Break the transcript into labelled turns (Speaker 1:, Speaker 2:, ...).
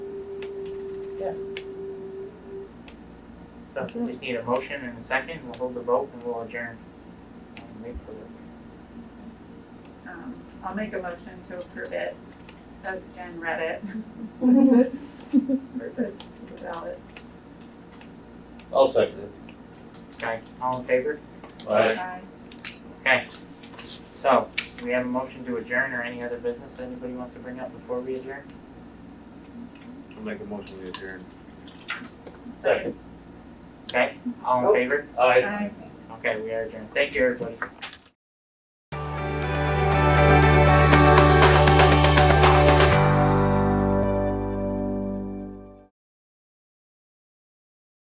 Speaker 1: Yeah.
Speaker 2: So we just need a motion and a second, we'll hold the vote and we'll adjourn. And wait for the-
Speaker 3: Um, I'll make a motion to approve it as Jen read it. For the the ballot.
Speaker 4: I'll second it.
Speaker 2: Okay, all in favor?
Speaker 4: Aye.
Speaker 3: Aye.
Speaker 2: Okay. So, do we have a motion to adjourn or any other business that anybody wants to bring up before we adjourn?
Speaker 4: I'll make a motion to adjourn.
Speaker 2: Okay, all in favor?
Speaker 4: Aye.
Speaker 3: Aye.
Speaker 2: Okay, we are adjourned. Thank you, everybody.